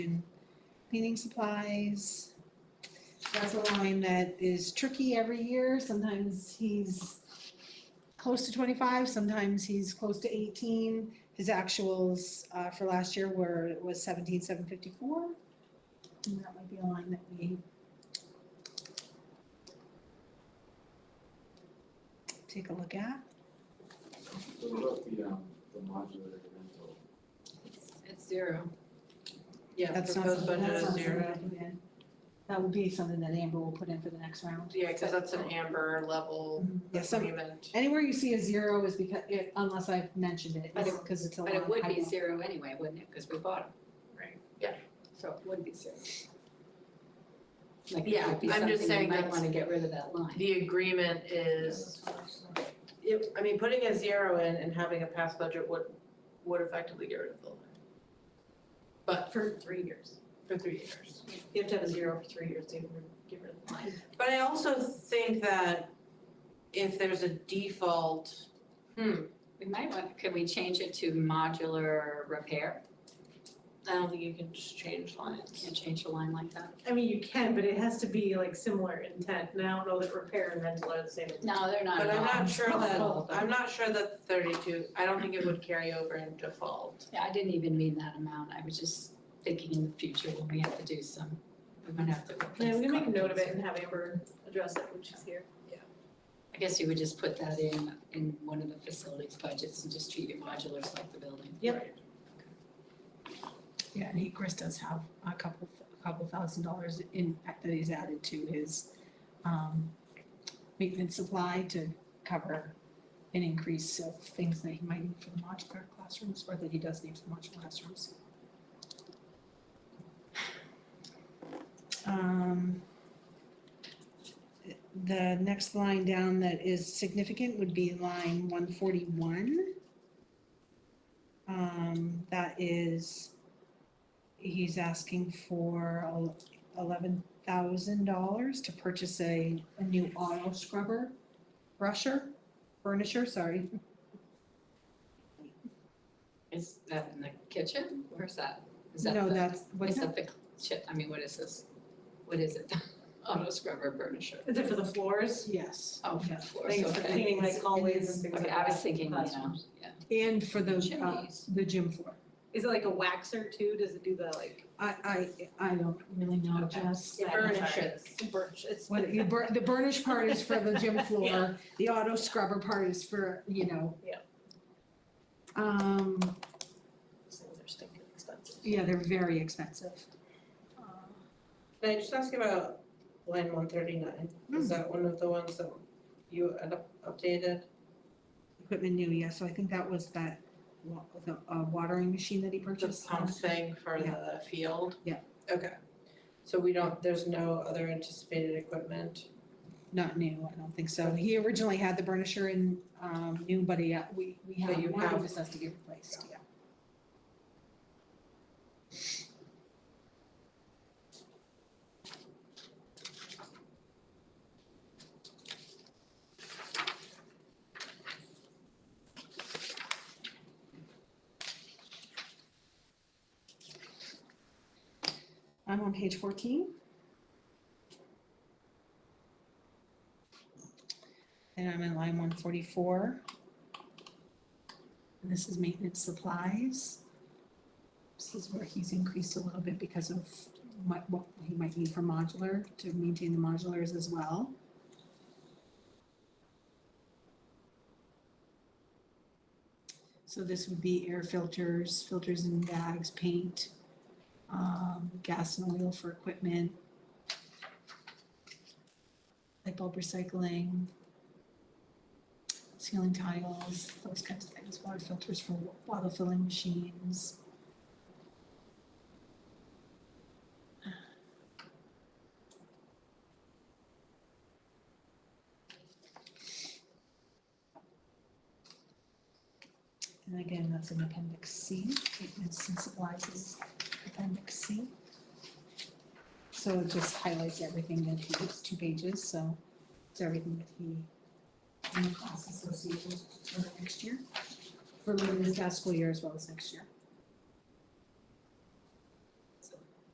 and cleaning supplies. That's a line that is tricky every year. Sometimes he's close to twenty-five, sometimes he's close to eighteen. His actuals uh, for last year were, was seventeen, seven fifty-four. And that might be a line that we take a look at. What about the, um, the modular rental? It's zero. Yeah, That's not proposed something, budget that's not is something zero. that, yeah. That would be something that Amber will put in for the next round. Yeah, because that's an amber level Yeah, some, agreement. anywhere you see a zero is because, it- unless I've mentioned it, But it- because it's a lot. But it would be zero anyway, wouldn't it, because we bought them? Right. Yeah, so it would be zero. Like, it Yeah, would be I'm something just you saying might that's- wanna get rid of that line. The agreement is, it- I mean, putting a zero in and having a past budget would, would effectively get rid of the line. But For three years. for three years. You have to have a zero for three years to get rid of the line. But I also think that if there's a default, hmm, We might want, could we change it to modular repair? I don't think you can just change lines. Can't change the line like that? I mean, you can, but it has to be like similar intent, and I don't know that repair and rental are the same. No, they're not But at I'm all. not sure that, Oh, I'm not sure that thirty-two, I don't think it would carry over in default. Yeah, I didn't even mean that amount, I was just thinking in the future when we have to do some, we're gonna have to replace. Yeah, we can make a note of carpets. it and have Amber address it when she's here. I guess you would just put that in, in one of the facilities budgets and just treat your modulars like the building. Yep. Yeah, and he, Chris does have a couple, a couple thousand dollars in, that he's added to his, um, maintenance supply to cover an increase of things that he might need for the modular classrooms, or that he does need for modular classrooms. Um, The next line down that is significant would be line one forty-one. Um, that is, he's asking for eleven thousand dollars to purchase a, a new auto scrubber, brusher, burnisher, sorry. Is that in the kitchen? Where's that? Is that No, the- that's, what's Is that? that the chip, I mean, what is this? What is it? Auto scrubber burnisher? Is it for the floors? Yes. Oh, Yeah. for floors, Things for okay. cleaning It's- like it hallways is- and things like Okay, that. I was thinking, you know, Classrooms. yeah. And for the, uh, Chimneys. the gym floor. Is it like a waxer too? Does it do the like I, I, I don't really know, Jess. Yeah, Burn I'm sorry. it. birch? It's. What, you bur- the burnish part is for the gym Yeah. floor, the auto scrubber part is for, you know. Yeah. Um, Those things are stinking expensive. Um, yeah, they're very expensive. Can I just ask about line one thirty-nine? Is that one of the ones that you had up- updated? Equipment new, yeah, so I think that was that wa- the, uh, watering machine that he The purchased. pump thing for the field? Yeah. Okay. So we don't, there's no other anticipated equipment? Not new, I don't think so. He originally had the burnisher in, um, new, but he, uh, we, we But have you one, have- it just has to get replaced, yeah. I'm on page fourteen. And I'm in line one forty-four. And this is maintenance supplies. This is where he's increased a little bit because of what, what he might need for modular, to maintain the modulars as well. So this would be air filters, filters and bags, paint, um, gas and oil for equipment. Light bulb recycling, ceiling tiles, those kinds of things, water filters for wa- water filling machines. And again, that's an appendix C, Maintenance and supplies is appendix C. so it just highlights everything that he, it's two pages, so it's everything that he And the costs associated for the next year. for this past school year as well as next year.